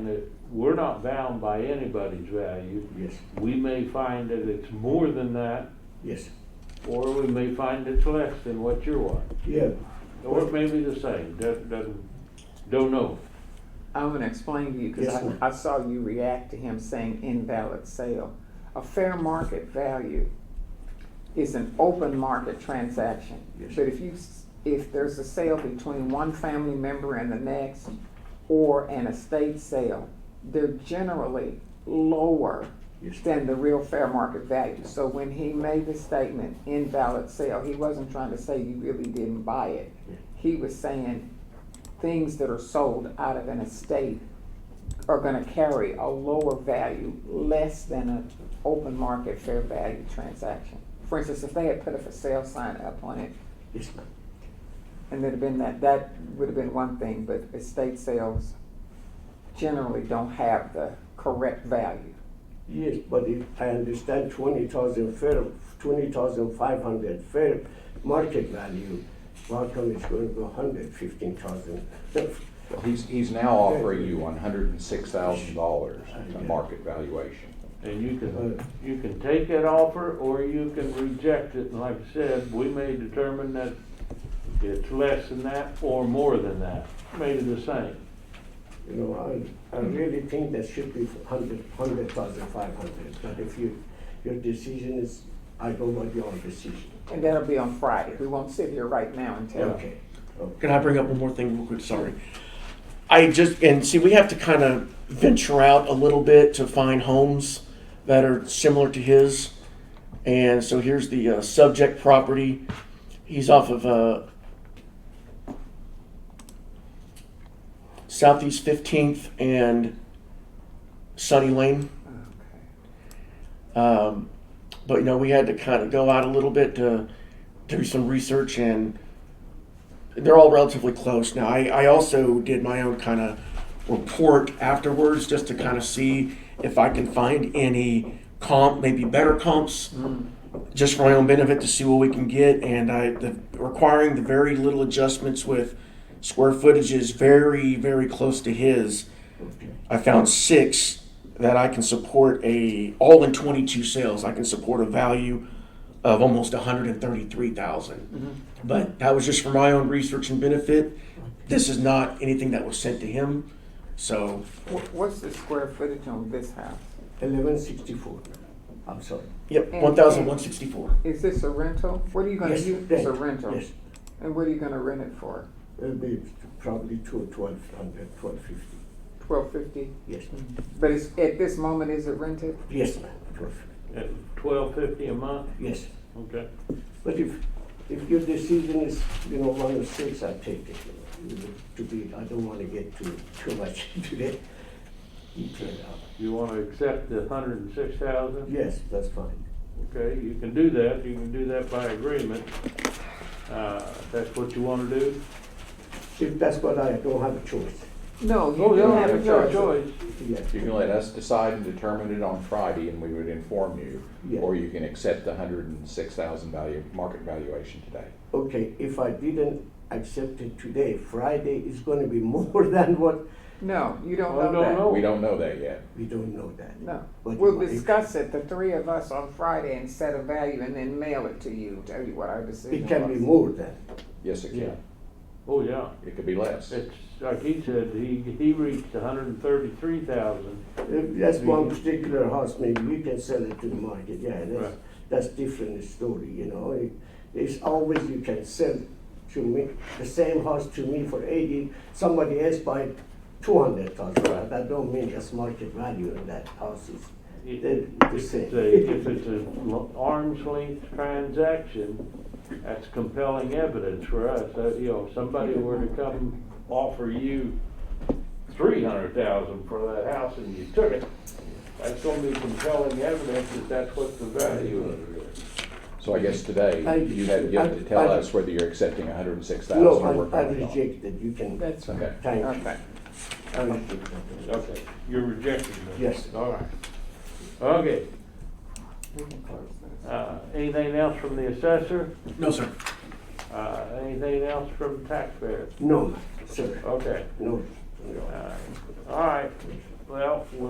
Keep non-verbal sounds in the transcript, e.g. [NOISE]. And that we're not bound by anybody's value. Yes, We may find that it's more than that, yes, or we may find it's less than what you're wanting. yeah, Or it may be the same, doesn't, doesn't, don't know. I'm gonna explain to you, because Yes, ma'am. I, I saw you react to him saying invalid sale. A fair market value is an open market transaction. Yes. But if you, s- if there's a sale between one family member and the next, or an estate sale, they're generally lower yes, than the real fair market value. So when he made the statement invalid sale, he wasn't trying to say you really didn't buy it. Yeah. He was saying things that are sold out of an estate are gonna carry a lower value, less than an open market fair value transaction. For instance, if they had put a for sale sign up on it, yes, ma'am. and there'd have been that, that would have been one thing, but estate sales generally don't have the correct value. Yes, but if I understand twenty thousand fair, twenty thousand five hundred fair market value, Markham is going to go hundred fifteen thousand. He's, he's now offering you one hundred and six thousand dollars to market valuation. And you can, you can take that offer, or you can reject it, and like I said, we may determine that it's less than that or more than that, maybe the same. You know, I, I really think that should be hundred, hundred thousand five hundred, but if you, your decision is, I don't want your decision. And that'll be on Friday. We won't sit here right now and tell. Okay, okay, Can I bring up one more thing real quick? Sorry. I just, and see, we have to kind of venture out a little bit to find homes that are similar to his. And so here's the uh, subject property. He's off of uh, Southeast 15th and Sunny Lane. Okay. Um, but you know, we had to kind of go out a little bit to do some research, and they're all relatively close. Now, I, I also did my own kind of report afterwards just to kind of see if I can find any comp, maybe better comps, just for my own benefit to see what we can get. And I the, requiring the very little adjustments with square footage is very, very close to his. okay. I found six that I can support a all in 22 sales. I can support a value of almost 133,000. But that was just for my own research and benefit. This is not anything that was sent to him. So Wh- What's the square footage on this house? Eleven sixty-four, I'm sorry. yep, And- 1,164. Is this a rental? What are you gonna Yes, use? It's rent, a rental. Yes, And what are you gonna rent it for? it'll be probably two, twelve hundred, twelve fifty, Twelve fifty? yes, ma'am. But it's, at this moment, is it rented? Yes, ma'am, twelve fifty. At twelve fifty a month, Yes, okay? but if, if your decision is, you know, one of six, I take it, you know, to be, I don't wanna get too, too much [LAUGHS] into that detail. You wanna accept the hundred and six thousand? Yes, that's fine. Okay, you can do that, you can do that by agreement. Uh, if that's what you wanna do? If that's what I, don't have a choice, No, Oh, you you don't don't have a your choice. choice. yes. You can let us decide and determine it on Friday, and we would inform you. Yeah. Or you can accept the hundred and six thousand value, market valuation today. Okay, if I didn't accept it today, Friday is gonna be [LAUGHS] more than what, No, you don't Oh, Well, don't know know. We don't know that yet. we don't know that. that. No. But We'll if- discuss it, the three of us on Friday and set a value and then mail it to you, tell you what our decision It was. can be more than, Yes, it Yeah. can. Oh, yeah, It could be less. it's, like he said, he, he reached hundred and thirty-three thousand. if that's one particular house, maybe you can sell it to the market, yeah, that's, Right. that's different story, you know. It- It's always you can sell to me, the same house to me for eighty, somebody else buy two hundred thousand, that don't mean that's market value of that house is, they're the If it's a- if same. it's an arm's length transaction, that's compelling evidence for us, that, you know, if somebody were to come offer you three hundred thousand for that house and you took it, that's gonna be compelling evidence that that's what the value of it is. So I guess I- today, you have yet to tell I- I- us whether you're accepting a hundred and six [LAUGHS] thousand No, or we're I, I coming on. reject that, you can, That's right. Okay. thank you. I Okay. reject that. Okay, you're rejecting this? Yes. All right. Okay, We can close this. uh, anything else from the assessor? No, sir. Uh, anything else from taxpayer? No, sir, Okay, no. uh, all right, Well, we'll